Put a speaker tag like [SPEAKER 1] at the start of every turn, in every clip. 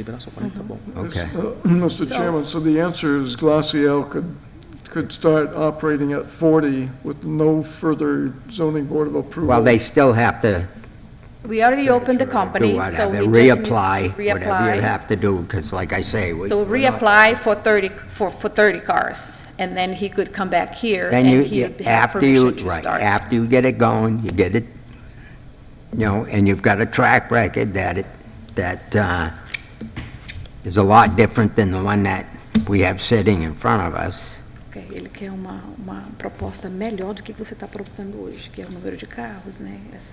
[SPEAKER 1] Libera só
[SPEAKER 2] Uhum.
[SPEAKER 1] 40, "Tá bom.
[SPEAKER 3] Okay.
[SPEAKER 4] Mr. uh, Chairman, so the answer is Glacial could, could start operating at 40 with no further zoning board of approval.
[SPEAKER 3] Well, they still have to
[SPEAKER 2] We already opened the
[SPEAKER 3] do
[SPEAKER 2] company, so
[SPEAKER 3] whatever,
[SPEAKER 2] we just need to
[SPEAKER 3] reapply, whatever you
[SPEAKER 2] reapply.
[SPEAKER 3] have to do, because like I say, we...
[SPEAKER 2] So
[SPEAKER 3] we're not-
[SPEAKER 2] reapply for 30, for, for 30 cars, and then he could come back here
[SPEAKER 3] Then
[SPEAKER 2] and
[SPEAKER 3] you,
[SPEAKER 2] he
[SPEAKER 3] you-
[SPEAKER 2] would have
[SPEAKER 3] after you,
[SPEAKER 2] permission to
[SPEAKER 3] right,
[SPEAKER 2] start.
[SPEAKER 3] after you get it going, you get it, you know, and you've got a track record that it, that, uh, is a lot different than the one that we have sitting in front of us.
[SPEAKER 2] Ok, Ele quer uma, uma proposta melhor do que você está propondo hoje, que é o número de carros, né? Essa,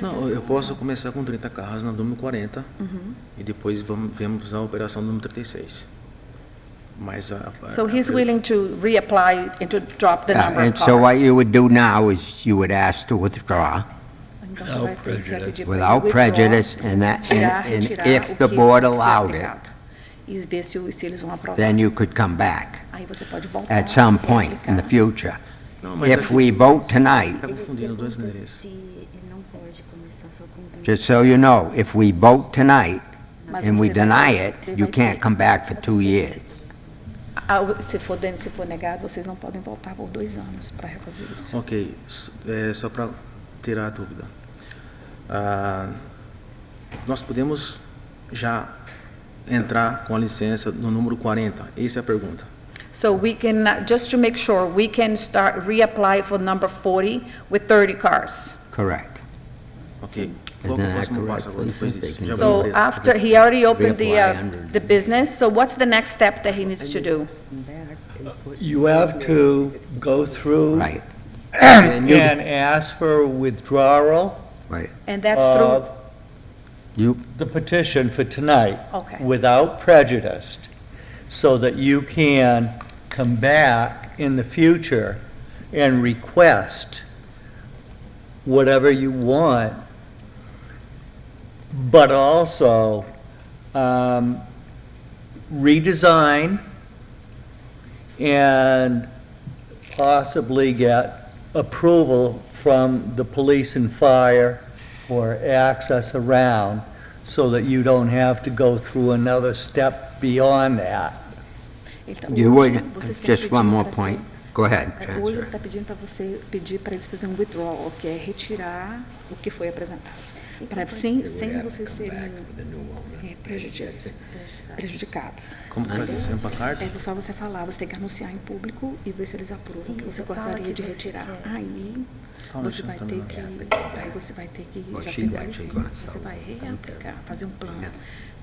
[SPEAKER 1] Não, eu posso começar com 30 carros, nós damos 40
[SPEAKER 2] Uhum.
[SPEAKER 1] e depois vamos, vemos a operação número 36. Mas a. a-
[SPEAKER 2] so he's
[SPEAKER 1] a-
[SPEAKER 2] willing to reapply and to drop the
[SPEAKER 3] Uh,
[SPEAKER 2] number of
[SPEAKER 3] And so what
[SPEAKER 2] cars.
[SPEAKER 3] you would do now is you would ask to withdraw
[SPEAKER 2] Então você vai ter que se pedir pra ele
[SPEAKER 3] without
[SPEAKER 2] withdraw, e
[SPEAKER 3] prejudice, and that,
[SPEAKER 2] tirar,
[SPEAKER 3] and- and
[SPEAKER 2] retirar
[SPEAKER 3] if
[SPEAKER 2] o
[SPEAKER 3] the
[SPEAKER 2] que
[SPEAKER 3] board
[SPEAKER 2] foi
[SPEAKER 3] allowed it,
[SPEAKER 2] aplicado. E ver se, se eles vão aprovar.
[SPEAKER 3] then you could come back
[SPEAKER 2] Aí você pode voltar.
[SPEAKER 3] at some
[SPEAKER 2] e
[SPEAKER 3] point in the
[SPEAKER 2] aplicar.
[SPEAKER 3] future.
[SPEAKER 1] Não, mas
[SPEAKER 3] If
[SPEAKER 1] aqui-
[SPEAKER 3] we vote tonight,
[SPEAKER 1] Tá confundindo dois
[SPEAKER 5] Pergunta
[SPEAKER 1] endereços.
[SPEAKER 5] Se ele não pode começar só com um.
[SPEAKER 3] Just so you know, if we vote tonight
[SPEAKER 2] Mas
[SPEAKER 3] and we
[SPEAKER 2] você vai-
[SPEAKER 3] deny it,
[SPEAKER 2] você
[SPEAKER 3] you
[SPEAKER 2] vai
[SPEAKER 3] can't
[SPEAKER 2] ter-
[SPEAKER 3] come back for two years.
[SPEAKER 2] Ah, o- se for, den- se for negado, vocês não podem voltar por dois anos para refazer isso.
[SPEAKER 1] Ok, s- é, só para tirar a dúvida. Ah, nós podemos já entrar com a licença no número 40? Essa é a pergunta.
[SPEAKER 2] So we can, uh, just to make sure, we can start, reapply for number 40 with 30 cars.
[SPEAKER 3] Correct.
[SPEAKER 1] Ok. Qual que é o
[SPEAKER 3] Isn't that
[SPEAKER 1] próximo
[SPEAKER 3] correct?
[SPEAKER 1] passo agora depois disso? Já abriu a
[SPEAKER 2] So
[SPEAKER 1] empresa.
[SPEAKER 2] after, he already opened the,
[SPEAKER 3] Reapply
[SPEAKER 2] uh,
[SPEAKER 3] under- Uh,
[SPEAKER 2] the business, so what's the next step that he needs to do?
[SPEAKER 6] You have to go through
[SPEAKER 3] Right,
[SPEAKER 6] and ask for withdrawal
[SPEAKER 3] right.
[SPEAKER 2] And that's through,
[SPEAKER 6] of
[SPEAKER 3] You,
[SPEAKER 6] the petition for tonight.
[SPEAKER 2] Okay.
[SPEAKER 6] Without prejudice, so that you can come back in the future and request whatever you want, but also um, redesign and possibly get approval from the police and fire for access around so that you don't have to go through another step beyond that.
[SPEAKER 2] ele tá-
[SPEAKER 3] you would,
[SPEAKER 2] vocês tão
[SPEAKER 3] just one
[SPEAKER 2] pedindo
[SPEAKER 3] more
[SPEAKER 2] pra
[SPEAKER 3] point.
[SPEAKER 2] ser-
[SPEAKER 3] Go ahead,
[SPEAKER 2] é, Hoje
[SPEAKER 3] Chancellor.
[SPEAKER 2] está pedindo para você, pedir para eles fazerem um withdrawal, que é retirar o que foi apresentado. Para, sem, sem vocês serem é, prejudici- prejudicados. Tá
[SPEAKER 1] Como que faz isso? Sampa carta?
[SPEAKER 2] É só você falar, você tem que anunciar em público e ver se eles aprovam o que você gostaria de retirar. Aí,
[SPEAKER 1] Calma, deixa
[SPEAKER 2] você
[SPEAKER 1] eu
[SPEAKER 2] vai ter
[SPEAKER 1] terminar.
[SPEAKER 2] que, aí você vai ter que,
[SPEAKER 3] Well,
[SPEAKER 2] já
[SPEAKER 3] she
[SPEAKER 2] pegou a
[SPEAKER 3] actually
[SPEAKER 2] licença,
[SPEAKER 3] got
[SPEAKER 2] você
[SPEAKER 3] some
[SPEAKER 2] vai reaplicar, fazer um plano.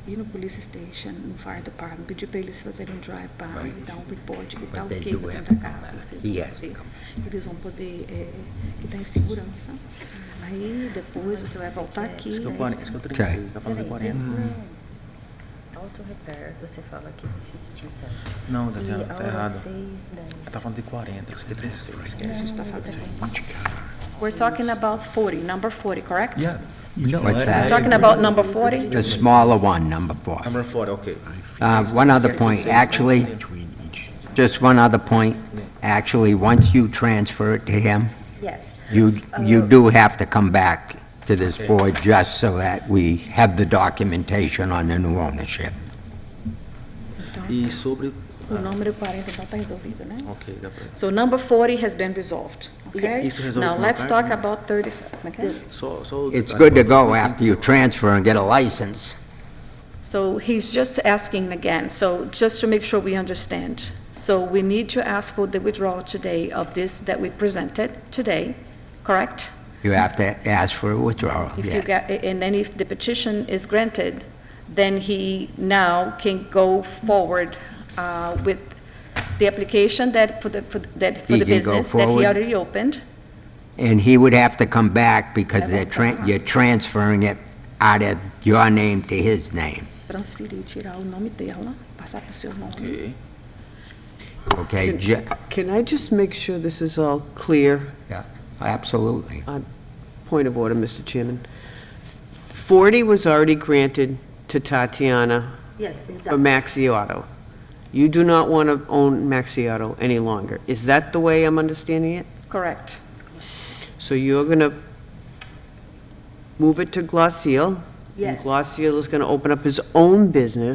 [SPEAKER 2] Ir no police station, no fire department, pedir para eles fazerem um drive-by, dar um report, que tá
[SPEAKER 3] they
[SPEAKER 2] ok
[SPEAKER 3] do
[SPEAKER 2] com
[SPEAKER 3] have
[SPEAKER 2] tanta
[SPEAKER 3] to come
[SPEAKER 2] carga,
[SPEAKER 3] back.
[SPEAKER 2] vocês
[SPEAKER 3] He
[SPEAKER 2] vão
[SPEAKER 3] has to
[SPEAKER 2] poder,
[SPEAKER 3] come
[SPEAKER 2] eles vão poder, é, que tá em segurança. Aí, depois, você vai voltar aqui. né?
[SPEAKER 1] Esse que é o
[SPEAKER 2] aí
[SPEAKER 1] 40, esse que é o 36, está falando de
[SPEAKER 2] Uhum.
[SPEAKER 1] 40. Uhum.
[SPEAKER 5] Auto repair, é um você fala aqui de utilização.
[SPEAKER 1] Não, Tatiana,
[SPEAKER 5] E
[SPEAKER 1] tá
[SPEAKER 5] aula
[SPEAKER 1] errado.
[SPEAKER 5] seis, dane-se.
[SPEAKER 1] Ela tá falando de 40, isso aqui é 36,
[SPEAKER 2] a
[SPEAKER 1] esquece.
[SPEAKER 2] gente tá fazendo. We're talking about 40, number 40, correct?
[SPEAKER 3] What's that?
[SPEAKER 2] Talking about number 40?
[SPEAKER 3] The smaller one, number four.
[SPEAKER 1] Number 40, ok.
[SPEAKER 3] Uh, One other point, actually, just one other point. Actually, once you transfer it to him,
[SPEAKER 5] Yes.
[SPEAKER 3] you, you
[SPEAKER 5] Uh,
[SPEAKER 3] do have to come back to this board just so that we have the documentation on the new ownership.
[SPEAKER 1] E sobre.
[SPEAKER 2] O número 40 então está resolvido, né?
[SPEAKER 1] Ok, dá pra.
[SPEAKER 2] So number 40 has been resolved, okay?
[SPEAKER 1] Isso resolve
[SPEAKER 2] Now,
[SPEAKER 1] com a
[SPEAKER 2] let's
[SPEAKER 1] carta,
[SPEAKER 2] talk
[SPEAKER 1] né?
[SPEAKER 2] about 37, okay?
[SPEAKER 1] Só, só. o-
[SPEAKER 3] It's good to go after you transfer and get a license.
[SPEAKER 2] So he's just asking again, so just to make sure we understand. So we need to ask for the withdrawal today of this that we presented today, correct?
[SPEAKER 3] You have to ask for a withdrawal,
[SPEAKER 2] If you
[SPEAKER 3] yeah.
[SPEAKER 2] got, and then if the petition is granted, then he now can go forward uh, with the application that, for the, for that, for
[SPEAKER 3] He
[SPEAKER 2] the
[SPEAKER 3] can go
[SPEAKER 2] business that he
[SPEAKER 3] forward.
[SPEAKER 2] already opened.
[SPEAKER 3] And he would have to come back because they're, tran- you're transferring it out of your name to his name,
[SPEAKER 2] transferir, tirar o nome dela, passar para o seu nome.
[SPEAKER 1] Ok.
[SPEAKER 3] okay? Ju-
[SPEAKER 7] Can I just make sure this is all clear?
[SPEAKER 3] yeah, Absolutely.
[SPEAKER 7] Point of order, Mr. Chairman. 40 was already granted to Tatiana
[SPEAKER 5] Yes, we're
[SPEAKER 7] for
[SPEAKER 5] done.
[SPEAKER 7] Maxi Auto. You do not want to own Maxi Auto any longer. Is that the way I'm understanding it?
[SPEAKER 2] Correct.
[SPEAKER 7] So you're going to move it to Glacial
[SPEAKER 5] Yes.
[SPEAKER 7] Glossier is going to open up his own business.